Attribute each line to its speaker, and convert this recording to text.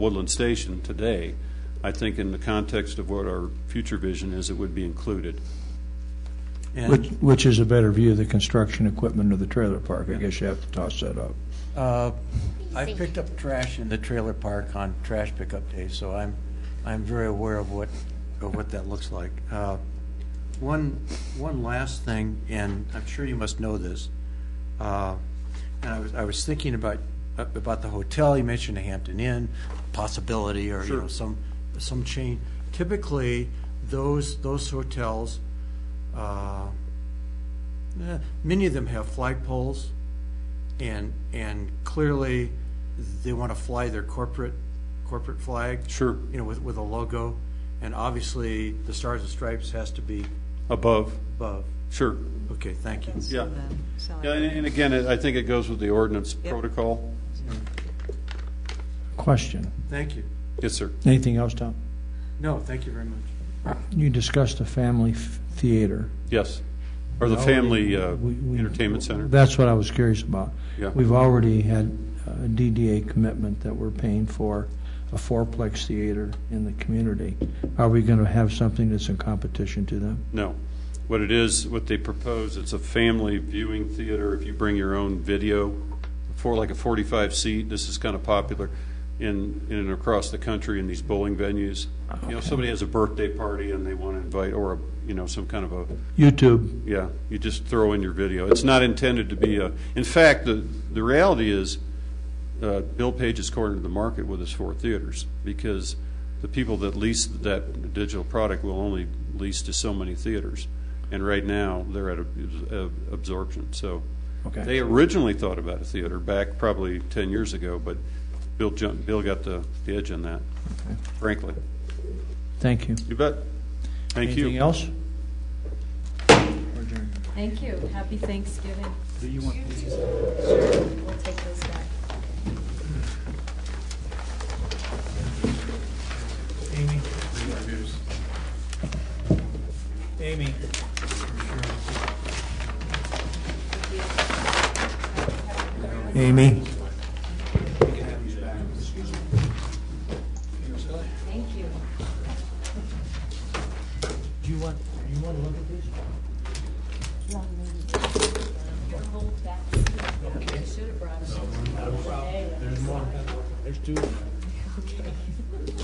Speaker 1: Woodland Station today, I think in the context of what our future vision is, it would be included.
Speaker 2: Which,
Speaker 1: And
Speaker 2: which is a better view of the construction equipment of the trailer park? I guess you have to toss that up.
Speaker 3: Uh, I picked up trash in the trailer park on trash pickup day, so I'm, I'm very aware of what, of what that looks like. Uh, One, one last thing, and I'm sure you must know this. Uh, And I was, I was thinking about, about the hotel, you mentioned the Hampton Inn, possibility, or, you know, some, some chain. Typically, those, those hotels, uh, eh, many of them have flagpoles. And, and clearly, they want to fly their corporate, corporate flag.
Speaker 1: Sure.
Speaker 3: You know, with, with a logo, and obviously, the Stars and Stripes has to be
Speaker 1: above,
Speaker 3: above.
Speaker 1: sure,
Speaker 3: Okay, thank you.
Speaker 1: yeah.
Speaker 4: So
Speaker 1: Yeah, and and again, I think it goes with the ordinance
Speaker 4: Yep.
Speaker 1: protocol.
Speaker 2: Question.
Speaker 3: Thank you.
Speaker 1: Yes, sir.
Speaker 2: Anything else, Tom?
Speaker 3: No, thank you very much.
Speaker 2: You discussed the family f- theater.
Speaker 1: Yes. Or the
Speaker 2: No,
Speaker 1: family uh,
Speaker 2: we- we-
Speaker 1: entertainment center.
Speaker 2: That's what I was curious about.
Speaker 1: Yeah.
Speaker 2: We've already had a DDA commitment that we're paying for a fourplex theater in the community. Are we going to have something that's in competition to them?
Speaker 1: No. What it is, what they propose, it's a family viewing theater. If you bring your own video for like a 45 seat, this is kind of popular in, in and across the country in these bowling venues. You know, somebody has a birthday party and they want to invite, or, a you know, some kind of a,
Speaker 2: YouTube,
Speaker 1: yeah, you just throw in your video. It's not intended to be a, in fact, the, the reality is, uh, Bill Page is cornered the market with his four theaters because the people that lease that digital product will only lease to so many theaters. And right now, they're at ab- ab- absorption. So
Speaker 2: Okay.
Speaker 1: they originally thought about a theater back probably 10 years ago, but Bill, jumped, Bill got the, the edge on that, frankly.
Speaker 2: thank you.
Speaker 1: You bet. Thank you.
Speaker 2: Anything else?
Speaker 4: Thank you. Happy Thanksgiving. Do you want these? Sure, we'll take those back.
Speaker 5: Amy.
Speaker 2: Amy?
Speaker 4: Thank you.
Speaker 5: Do you want, do you want to look at these?
Speaker 4: Long meeting. Your whole back seat. I should have brought it. There's more.
Speaker 5: There's two.
Speaker 4: Okay.